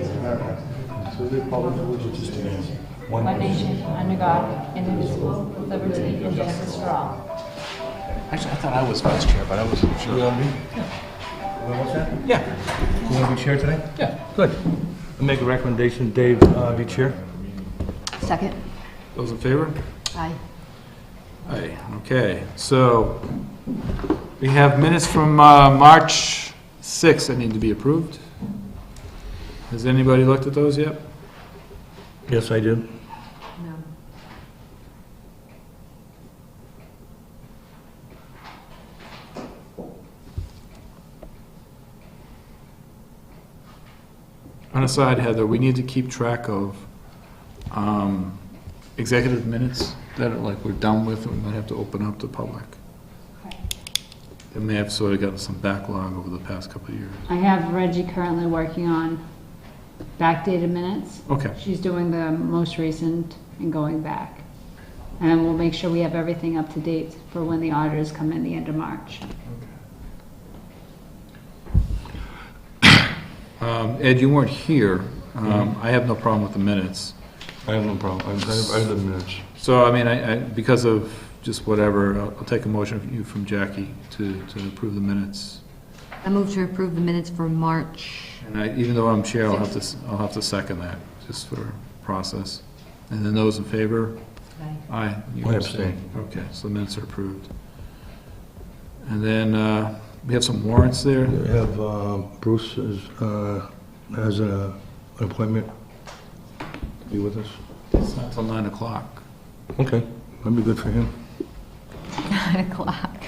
America through the Republic for which it stands, one one nation. nation, under God, indivisible, with liberty and justice for all. Actually, I thought I was vice chair, but I wasn't You sure. want me? Well, what's that? Yeah, You want to be chair today? yeah. Good. I make a recommendation, Dave, uh, be chair. Second? Those in favor? Aye. Aye, okay. So we have minutes from uh, March 6th that need to be approved. Has anybody looked at those yet? Yes, I do. No. On a side, Heather, we need to keep track of um, executive minutes that are like we're done with and we might have to open up to public. They may have sort of gotten some backlog over the past couple of years. I have Reggie currently working on backdated minutes. Okay, She's doing the most recent and going back. And we'll make sure we have everything up to date for when the auditors come in the end of March. Um, Ed, you weren't here. Um, I have no problem with the minutes. Mm-hmm. I have no problem. I have, I have the minutes. So, I mean, I, I, because of just whatever, I'll, I'll take a motion from you, from Jackie, to, to approve the minutes. I move to approve the minutes for March. And I, even though I'm chair, I'll have to, s- I'll have to second that, just for process. And then those in favor? Aye. Aye. you I abstain. Okay, so the minutes are approved. And then, uh, we have some warrants there. We have uh, Bruce is, uh, has a- an appointment. Be with us. It's not till nine o'clock. Okay. That'd be good for him. Nine o'clock.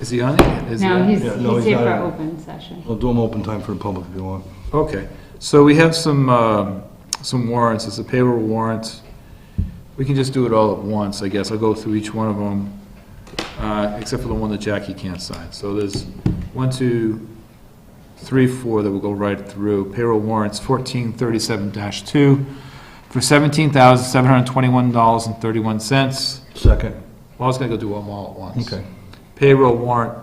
Is he on? it? Is he Now, on? he's, Yeah, no, he's he's here for not- open session. I'll do them open time for the public if you want. Okay, so we have some, um, some warrants, it's a payroll warrant. We can just do it all at once, I guess, I'll go through each one of them, uh, except for the one that Jackie can't sign. So there's one, two, three, four that will go right through. Payroll warrants fourteen thirty-seven two for seventeen thousand seven hundred twenty-one dollars and thirty-one cents. Second. Well, I was gonna go do them all at once. Okay. Payroll warrant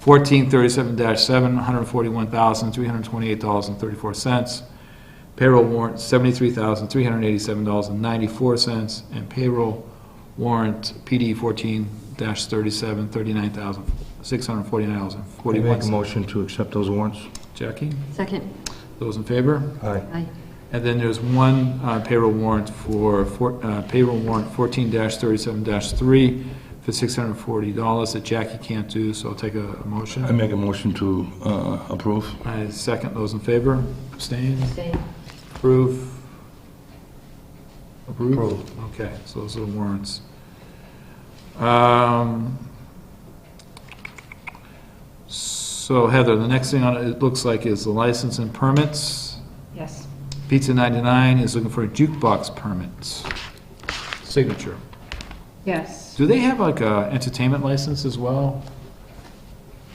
fourteen thirty-seven dash seven, one hundred forty-one thousand, three hundred twenty-eight dollars and thirty-four cents. Payroll warrant seventy-three thousand, three hundred eighty-seven dollars and ninety-four cents. And payroll warrant PD fourteen dash thirty-seven, thirty-nine thousand, six hundred forty-nine dollars and We forty-one Make a cents. motion to accept those warrants. Jackie, Second? those in favor? Aye. Aye. And then there's one uh, payroll warrant for, for- uh, payroll warrant fourteen thirty-seven three for six hundred forty dollars that Jackie can't do, so I'll take a a motion. I make a motion to uh, approve. I second those in favor. Abstain? Abstain. Approve? Approve. Approve. Okay, so those are the warrants. Um, So Heather, the next thing on it, it looks like is the license and permits. Yes. Pizza 99 is looking for a jukebox permit. Signature. Yes. Do they have like a entertainment license as well?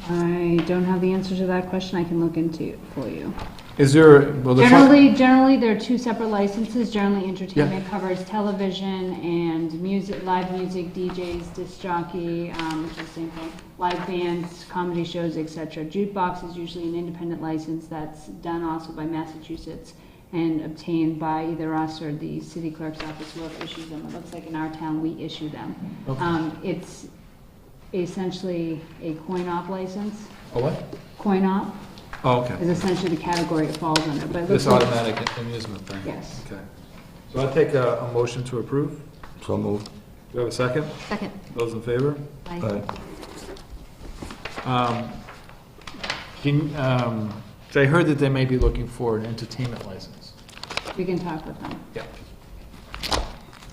I don't have the answer to that question. I can look into it for you. Is there, well, the... Generally, generally, there are two separate licenses. Generally, entertainment covers television and music, live music, DJs, disc jockey, um, which is the same thing, live bands, comedy shows, etc. Jukebox is usually an independent license that's done also by Massachusetts and obtained by either us or the city clerk's office, whoever issues them. It looks like in our town, we issue them. Okay. Um, it's essentially a coin-op license. A Oh, what? Coin-op Oh, okay. is essentially the category it falls under, but it looks This like- automatic amusement thing? Yes. Okay. So I take a, a motion to approve. Do So moved. we have a second? Second? Those in favor? Aye. Aye. Um, Can, um, so I heard that they may be looking for an entertainment license. We can talk with them. Yeah.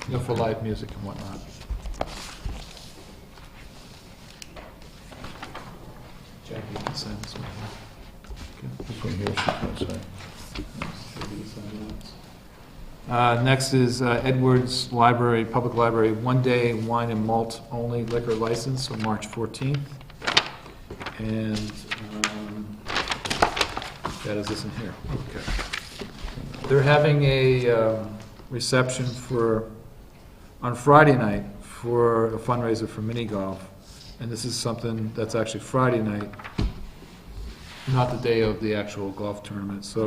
You know, for live music and whatnot. Jackie, you can sign this one here. This one here, that's it. Uh, Next is uh, Edwards Library, Public Library, one-day wine and malt only liquor license on March 14th. And um, that is this in here. Okay. They're having a um, reception for, on Friday night, for a fundraiser for mini golf. And this is something that's actually Friday night, not the day of the actual golf tournament. So